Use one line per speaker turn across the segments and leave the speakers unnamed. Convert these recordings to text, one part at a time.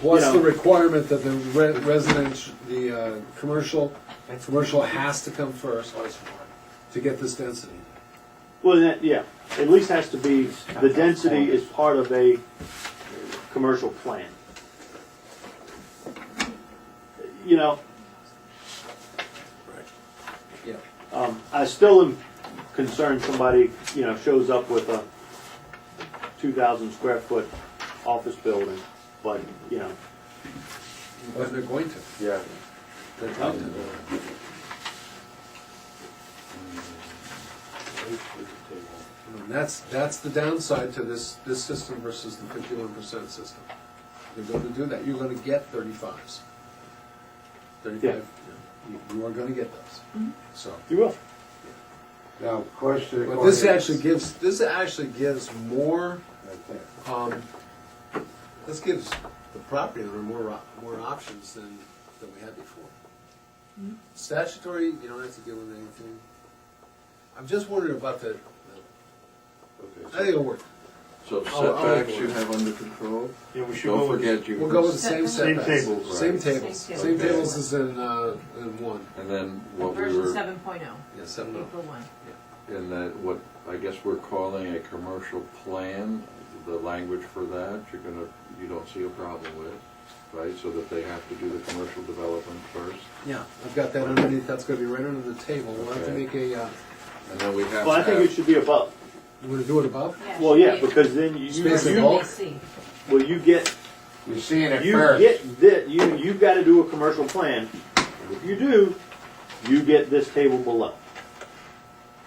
What's
you
the
know-
requirement that the re- resident, the uh, commercial, commercial has to come first to get this density?
Well, that, yeah, at least has to be, the density is part of a commercial plan. You know,
Yeah.
um, I still am concerned somebody, you know, shows up with a two thousand square foot office building, but, you know,
But they're going to.
Yeah.
They're going to. And that's, that's the downside to this, this system versus the fifty-one percent system. They're going to do that, you're gonna get thirty-fives. Thirty-five, you- you are gonna get those, so.
you will.
Now, question.
But this actually gives, this actually gives more, um, this gives the property owner more, op- more options than, than we had before. Statutory, you don't have to deal with anything. I'm just wondering about the, the- I think
Okay,
it'll work.
So so
I'll- I'll-
setbacks you have under control?
Yeah, we should
Don't
go with,
forget you.
We'll go with the same
Same
setbacks.
tables.
Same
Right.
tables,
Same
same
tables.
tables as in, uh, in one,
And then what we
Version
were,
seven point oh,
yeah, seven oh.
April one.
in that, what I guess we're calling a commercial plan, the language for that, you're gonna, you don't see a problem with, right? So that they have to do the commercial development first.
Yeah, I've got that underneath, that's gonna be right under the table, we'll have to
Okay.
make a, uh,
And then we have
Well, I
to
think it
have,
should be above.
you wanna do it above?
Well, yeah, because then you,
Space
you,
and bulk.
They see.
well, you get
You're seeing it
You
first.
get that. You you've got to do a commercial plan. If you do, you get this table below.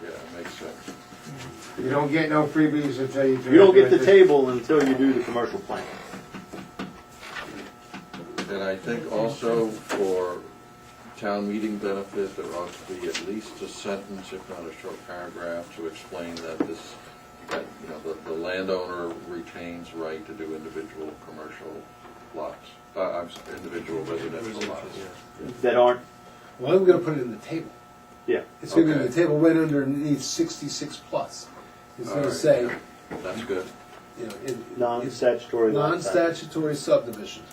yeah, makes sense.
You don't get no freebies until you do.
You don't get the
it.
table until you do the commercial plan.
And I think also for town meeting benefit, there ought to be at least a sentence, if not a short paragraph, to explain that this, that, you know, the, the landowner retains right to do individual commercial lots, uh, I'm sorry, individual residential lots.
That aren't.
Well, I'm gonna put it in the table.
Yeah.
It's gonna be in the
Okay.
table right underneath sixty-six plus. It's
All
gonna
right,
say,
yeah. That's good.
you know, in.
Non-statutory. lot size.
Non-statutory subdivision.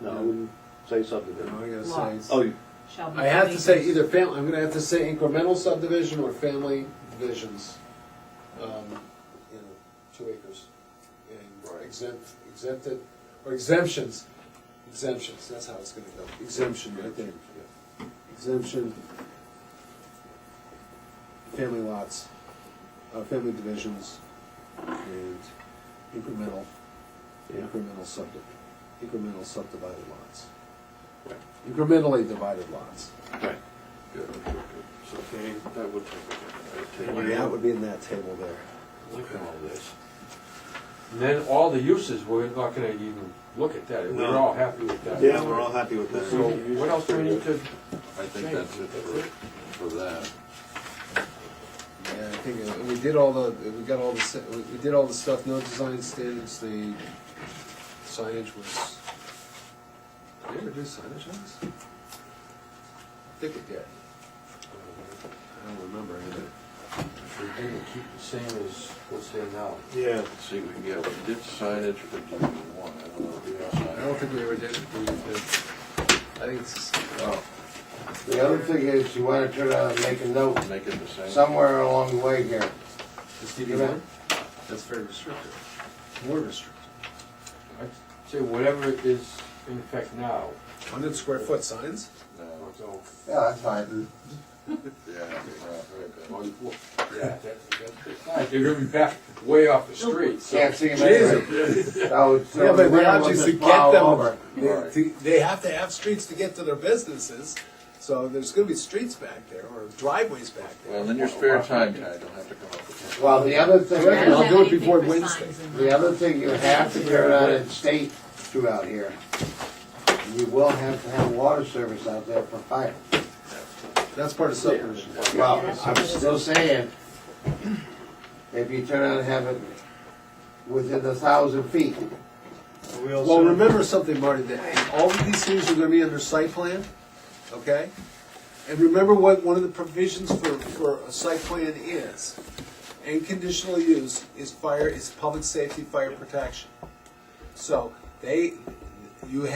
No, I wouldn't say subdivision.
No, I gotta say
Lot.
it's-
Oh,
Shall be.
I have to say
subdivided.
either family, I'm gonna have to say incremental subdivision or family divisions. Um, you know, two acres. And exempt, exempted, or exemptions, exemptions, that's how it's gonna go, exemption right there. Exemption. Family lots, uh, family divisions, and incremental, incremental subdiv, incremental subdivided lots. Incrementally divided lots.
right.
Good, good, good. So that would take, that would take.
That would be in that table there.
Look at all this.
And then all the uses, we're not gonna even look at that, we're
No.
all happy with that.
yeah, we're all happy with that.
So what else do we need to,
I think that's it for, for that.
Yeah, I think uh, we did all the, we got all the, se- we- we did all the stuff, no design standards, the signage was, did we ever do signage on this? I think we did. I don't remember, I did.
we didn't keep the same as what's there now?
Yeah.
Let's see, we, yeah, we did signage for D one, I don't know if we have signage.
I don't think we ever did, we did. I think it's,
Oh,
The other thing is, you wanna try to make a note
make it the same.
somewhere along the way here.
it's DB one? That's very restrictive, more restrictive.
I'd say whatever is in effect now,
Hundred square foot signs?
No,
so,
Yeah, that's fine.
yeah, yeah,
well, you- yeah, that's, that's, fine. they're gonna be back way off the street, so.
Can't see them anyway. So it's- so the winter ones just plow over.
They, they- they have to have streets to get to their businesses, so there's gonna be streets back there, or driveways back
Well, in your spare time, Ty, don't have to come up with that.
Well, the other thing,
Right. I'll
is-
Doesn't have
do it
anything
before
for
Wednesday.
signs in
the
there.
other thing, you have to clear out and state throughout here. You will have to have water service out there for fire.
That's part of subdivision.
Well, I'm still saying, if you turn out and have it within a thousand feet,
We
Well,
also,
remember something, Marty, that all of these things are gonna be under site plan, okay? And remember what one of the provisions for, for a site plan is, and conditional use is fire, is public safety, fire protection. So, they, you